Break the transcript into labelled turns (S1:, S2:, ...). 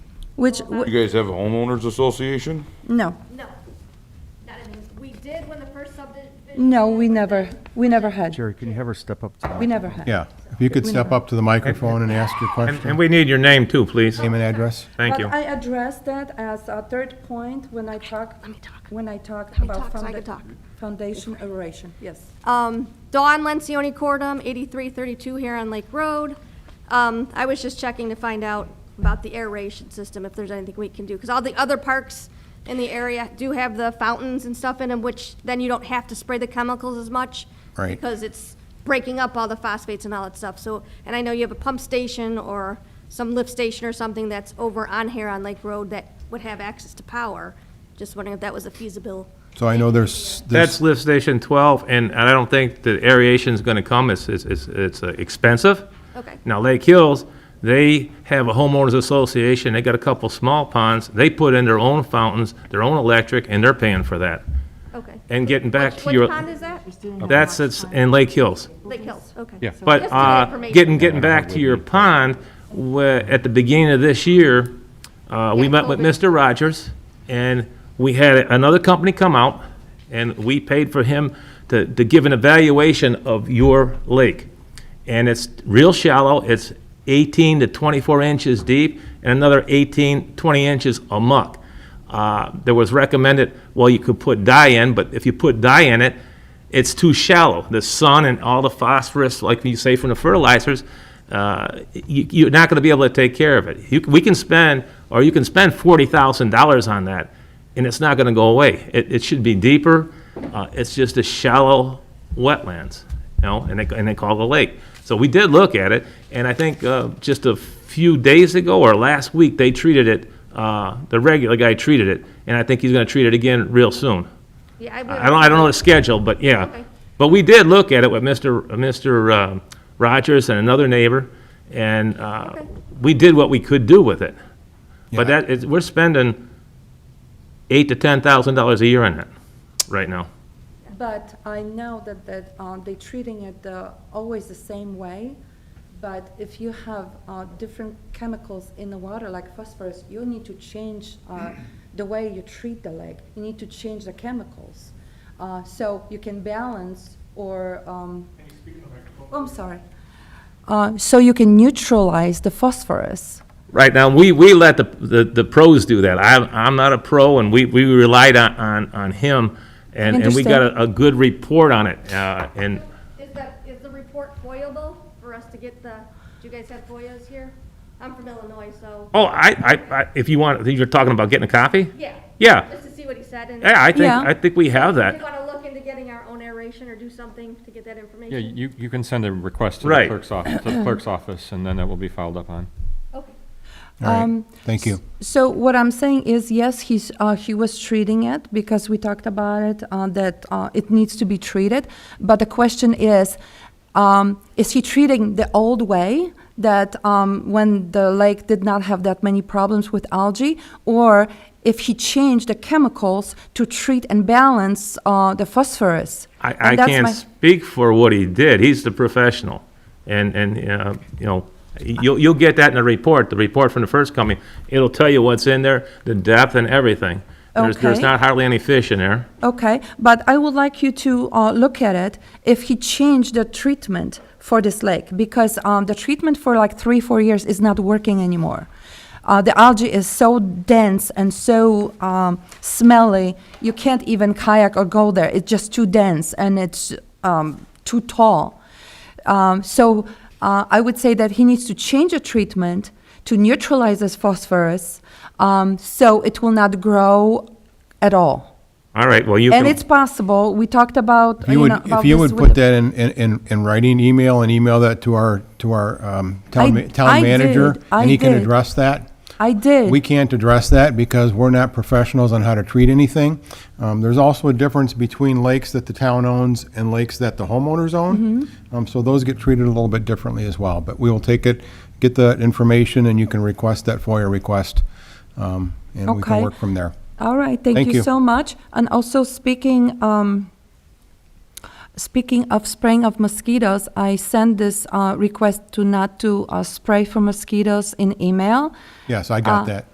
S1: Which,
S2: You
S1: wh-
S2: guys have a homeowners association?
S1: no,
S3: No, not in, we did when the first subdivision.
S1: no, we never, we never had.
S4: Jerry, can you have her step up to the
S1: We never had.
S5: Yeah, if you could step up to the microphone and ask your
S6: And,
S5: question,
S6: and we need your name too, please.
S5: name and address.
S6: Thank you.
S1: But I addressed that as a third point when I talked, when I talked
S3: me
S1: about
S3: talk so I can
S1: founda-
S3: talk.
S1: foundation erosion, yes.
S3: Um, Dawn Lencioni Cordum, eighty-three thirty-two here on Lake Road. Um, I was just checking to find out about the aeration system, if there's anything we can do, because all the other parks in the area do have the fountains and stuff in them, which then you don't have to spray the chemicals as much.
S5: Right.
S3: Because it's breaking up all the phosphates and all that stuff, so, and I know you have a pump station or some lift station or something that's over on here on Lake Road that would have access to power. Just wondering if that was a feasible.
S5: So I know there's,
S6: That's
S5: there's,
S6: lift station 12, and I don't think the aeration's gonna come, it's, it's, it's it's, uh, expensive.
S3: Okay.
S6: Now Lake Hills, they have a homeowners association, they got a couple small ponds, they put in their own fountains, their own electric, and they're paying for that.
S3: Okay.
S6: And getting back to your.
S3: Which pond is that?
S6: That's, it's in Lake Hills.
S3: Lake Hills, okay.
S6: But
S3: Just for
S6: uh,
S3: information.
S6: getting, getting back to your pond, where- at the beginning of this year, uh, we
S3: Yeah,
S6: met with
S3: COVID.
S6: Mr. Rogers, and we had another company come out, and we paid for him to, to give an evaluation of your lake. And it's real shallow, it's 18 to 24 inches deep, and another 18, 20 inches amuck. Uh, There was recommended, well, you could put dye in, but if you put dye in it, it's too shallow. The sun and all the phosphorus, like you say from the fertilizers, uh, you, you're not going to be able to take care of it. You, we can spend, or you can spend forty thousand dollars on that, and it's not going to go away. It, it should be deeper. Uh, it's just a shallow wetlands, you know, and they, and they call it a lake. So we did look at it, and I think uh, just a few days ago or last week they treated it. Uh, the regular guy treated it, and I think he's going to treat it again real soon.
S3: Yeah, I
S6: I don't, I don't know the schedule, but
S3: Okay.
S6: yeah. But we did look at it with Mr., Mr. uh, Rogers and another neighbor, and uh,
S3: Okay.
S6: we did what we could do with it. But
S5: Yeah.
S6: that, is- we're spending eight to ten thousand dollars a year on it, right now.
S1: But I know that, that um, they're treating it uh, always the same way, but if you have uh, different chemicals in the water, like phosphorus, you need to change uh, the way you treat the lake. You need to change the chemicals. Uh, So you can balance or, um, oh, I'm sorry. Uh, So you can neutralize the phosphorus.
S6: Right now, we, we let the, the the pros do that. I'm, I'm not a pro, and we, we relied on, on, on him, and, and we got a, a good report on it, uh, and.
S3: Is that, is the report foilable for us to get the, do you guys have FOIAs here? I'm from Illinois, so,
S6: Oh, I, I, I- if you want, you're talking about getting a copy?
S3: yeah.
S6: Yeah.
S3: Just to see what he said, and
S6: Yeah, I think,
S1: Yeah.
S6: I think we have
S3: we
S6: that.
S3: want to look into getting our own aeration or do something to get that information.
S7: Yeah, you, you can send a request to the
S6: Right.
S7: clerk's office, to the clerk's office, and then it will be followed up on.
S3: Okay.
S5: all right, thank you.
S1: Um, So what I'm saying is, yes, he's, uh, he was treating it because we talked about it, uh, that, uh, it needs to be treated. But the question is, um, is he treating the old way that, um, when the lake did not have that many problems with algae? Or if he changed the chemicals to treat and balance, uh, the phosphorus?
S6: I, I
S1: And that's
S6: can't
S1: my-
S6: speak for what he did. He's the professional. And, and, uh, you know, you'll, you'll get that in the report, the report from the first company. It'll tell you what's in there, the depth and everything. There's, there's
S1: Okay.
S6: not hardly any fish in there.
S1: Okay, but I would like you to uh, look at it if he changed the treatment for this lake because um, the treatment for like three, four years is not working anymore. Uh, the algae is so dense and so um, smelly, you can't even kayak or go there. It's just too dense and it's um, too tall. Um, so uh, I would say that he needs to change the treatment to neutralize this phosphorus um, so it will not grow at all.
S6: All right, well, you
S1: And
S6: can,
S1: it's possible, we talked about,
S5: If you
S1: you
S5: would,
S1: know,
S5: if
S1: about
S5: you
S1: this
S5: would
S1: with
S5: put
S1: the-
S5: that in, in- in, in writing, email, and email that to our, to our um, town
S1: I-
S5: ma-
S1: I
S5: town manager,
S1: did, I
S5: and he can
S1: did.
S5: address that.
S1: I did.
S5: We can't address that because we're not professionals on how to treat anything. Um, There's also a difference between lakes that the town owns and lakes that the homeowners own.
S1: Mm-hmm.
S5: Um, So those get treated a little bit differently as well, but we will take it, get the information, and you can request that FOIA request, um, and we
S1: Okay.
S5: can work from there.
S1: All right, thank
S5: Thank
S1: you
S5: you.
S1: so much. And also speaking, um, speaking of spraying of mosquitoes, I sent this uh, request to not to uh, spray for mosquitoes in email.
S5: Yes, I got that.